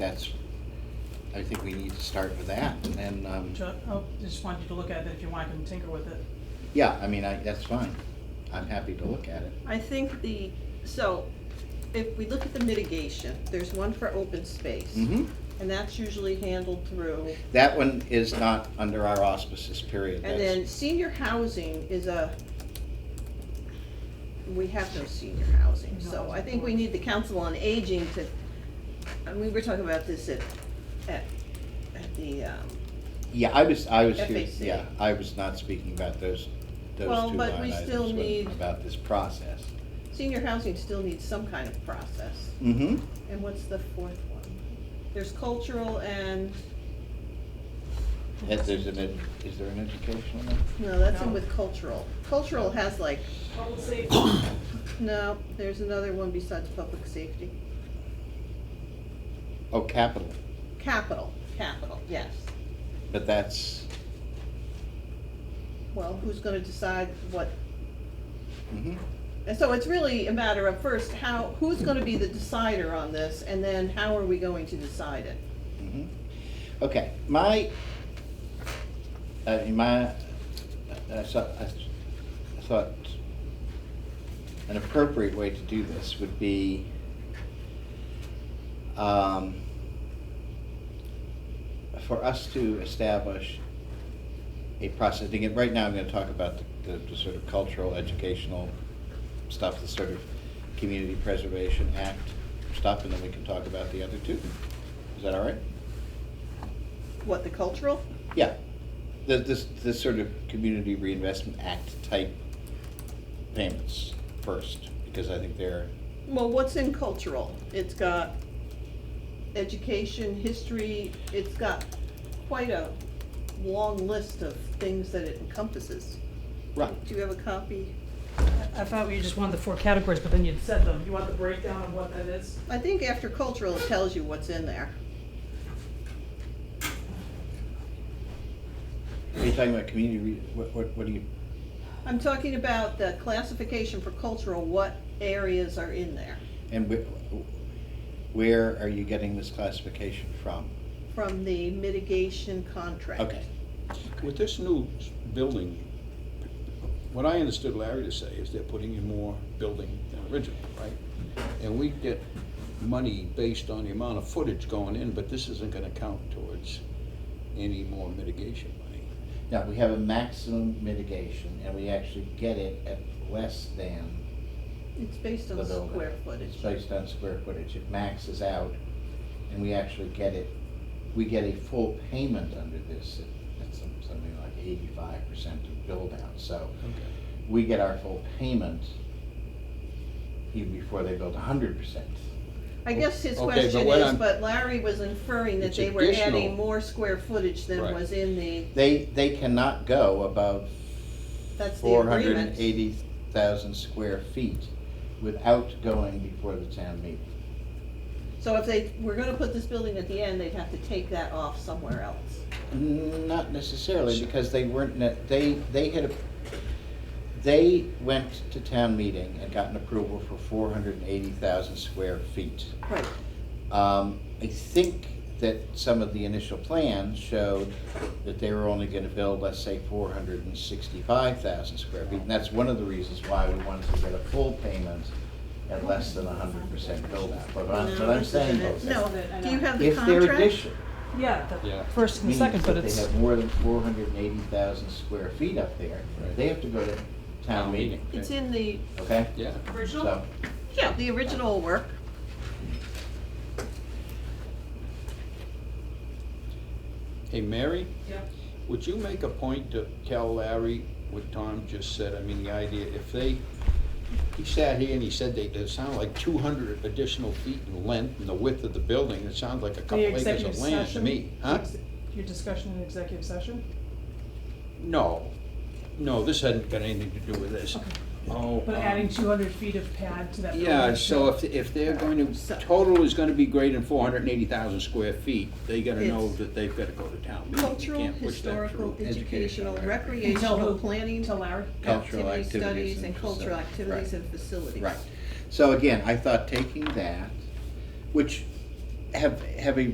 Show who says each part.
Speaker 1: that's, I think we need to start with that, and then, um,
Speaker 2: Ju- oh, Just want you to look at it if you want, you can tinker with it.
Speaker 1: yeah, I mean, I, that's fine. I'm happy to look at it.
Speaker 3: I think the, so, if we look at the mitigation, there's one for open space.
Speaker 1: hmm
Speaker 3: And that's usually handled through,
Speaker 1: That one is not under our auspices, period.
Speaker 3: and
Speaker 1: That's-
Speaker 3: then senior housing is a, we have no senior housing, so I think we need the council on aging to, and we were talking about this at, at, at the, um,
Speaker 1: Yeah, I was, I was here,
Speaker 3: FAC.
Speaker 1: yeah, I was not speaking about those, those two
Speaker 3: Well,
Speaker 1: line
Speaker 3: but we
Speaker 1: items,
Speaker 3: still
Speaker 1: but
Speaker 3: need-
Speaker 1: about this process.
Speaker 3: senior housing still needs some kind of process.
Speaker 1: Mm-hmm,
Speaker 3: And what's the fourth one? There's cultural and,
Speaker 1: is there's an, ed- is there an educational one?
Speaker 3: no, that's in
Speaker 2: No.
Speaker 3: with cultural. Cultural has like
Speaker 2: Public safety.
Speaker 3: No, there's another one besides public safety.
Speaker 1: Oh, capital,
Speaker 3: Capital, capital, yes.
Speaker 1: but that's,
Speaker 3: Well, who's gonna decide what,
Speaker 1: mhm.
Speaker 3: and so it's really a matter of first, how, who's gonna be the decider on this? And then how are we going to decide it?
Speaker 1: Mhm. Okay, my, I mean, my, I thought, I thought an appropriate way to do this would be, um, for us to establish a process, again, right now I'm gonna talk about the, the- the sort of cultural, educational stuff, the sort of Community Preservation Act stuff, and then we can talk about the other two. Is that all right?
Speaker 3: What, the cultural?
Speaker 1: Yeah, the, this, this sort of Community Reinvestment Act type payments first, because I think they're,
Speaker 3: Well, what's in cultural? It's got education, history, it's got quite a long list of things that it encompasses.
Speaker 1: right,
Speaker 3: Do you have a copy?
Speaker 2: I thought we just wanted the four categories, but then you'd said them. You want the breakdown of what that is?
Speaker 3: I think after cultural, it tells you what's in there.
Speaker 1: are you talking about community, re- what, what, what do you,
Speaker 3: I'm talking about the classification for cultural, what areas are in there
Speaker 1: and where, where are you getting this classification from?
Speaker 3: from the mitigation contract?
Speaker 1: Okay,
Speaker 4: With this new s- building, what I understood Larry to say is they're putting in more building than original, right? And we get money based on the amount of footage going in, but this isn't gonna count towards any more mitigation money.
Speaker 1: now, we have a maximum mitigation, and we actually get it at less than
Speaker 3: It's based
Speaker 1: the
Speaker 3: on
Speaker 1: building.
Speaker 3: square
Speaker 1: It's
Speaker 3: footage.
Speaker 1: based on square footage, it maxes out, and we actually get it, we get a full payment under this, at- at some- something like eighty-five percent of build out, so
Speaker 4: Okay.
Speaker 1: we get our full payment even before they build hundred percent.
Speaker 3: I guess his
Speaker 4: Okay, but
Speaker 3: question
Speaker 4: what
Speaker 3: is,
Speaker 4: I'm-
Speaker 3: but Larry was inferring that
Speaker 4: It's
Speaker 3: they were adding
Speaker 4: additional.
Speaker 3: more square footage than
Speaker 4: Right.
Speaker 3: was in the,
Speaker 1: They, they cannot go above
Speaker 3: that's the
Speaker 1: four hundred and
Speaker 3: agreement.
Speaker 1: eighty thousand square feet without going before the town meeting.
Speaker 3: So if they were gonna put this building at the end, they'd have to take that off somewhere else.
Speaker 1: Not necessarily, because they weren't, ne- they, they had, a- they went to town meeting and got an approval for four hundred and eighty thousand square feet.
Speaker 3: Right.
Speaker 1: Um, I think that some of the initial plans showed that they were only gonna build, let's say, four hundred and sixty-five thousand square feet. And that's one of the reasons why we wanted to get a full payment at less than hundred percent build out. But I'm, but I'm saying,
Speaker 3: No, do you have the
Speaker 1: if they're
Speaker 3: contract?
Speaker 1: addition,
Speaker 2: Yeah,
Speaker 4: Yeah.
Speaker 2: the first and
Speaker 1: means
Speaker 2: second, but
Speaker 1: that they
Speaker 2: it's,
Speaker 1: have more than four hundred and eighty thousand square feet up there,
Speaker 4: Right.
Speaker 1: they have to go to town meeting,
Speaker 3: It's in the,
Speaker 1: okay?
Speaker 4: Yeah,
Speaker 1: So,
Speaker 3: yeah, the original work.
Speaker 4: hey, Mary?
Speaker 2: Yep.
Speaker 4: Would you make a point to tell Larry what Tom just said? I mean, the idea, if they, he sat here and he said they, it sounded like two hundred additional feet in length and the width of the building, it sounds like a couple
Speaker 2: the
Speaker 4: acres
Speaker 2: executive
Speaker 4: of land to
Speaker 2: session.
Speaker 4: me, huh?
Speaker 2: ex- Your discussion in executive session?
Speaker 4: No, no, this hadn't got anything to do with this. Oh.
Speaker 2: But
Speaker 4: um,
Speaker 2: adding two hundred feet of pad to that.
Speaker 4: Yeah,
Speaker 2: building.
Speaker 4: so if, if they're going
Speaker 3: So-
Speaker 4: to, total is gonna be greater than four hundred and eighty thousand square feet, they gotta know
Speaker 3: It's-
Speaker 4: that they've gotta go to town meeting. You
Speaker 3: Cultural,
Speaker 4: can't push that
Speaker 3: historical,
Speaker 4: through.
Speaker 3: educational,
Speaker 1: educational, right.
Speaker 2: Until
Speaker 3: recreational,
Speaker 2: who?
Speaker 3: planning,
Speaker 2: Until Larry?
Speaker 1: Cultural
Speaker 3: activity
Speaker 1: activities
Speaker 3: studies
Speaker 1: and
Speaker 3: and cultural
Speaker 1: facilities.
Speaker 3: activities
Speaker 1: Right.
Speaker 3: and facilities.
Speaker 1: right, so again, I thought taking that, which have, have a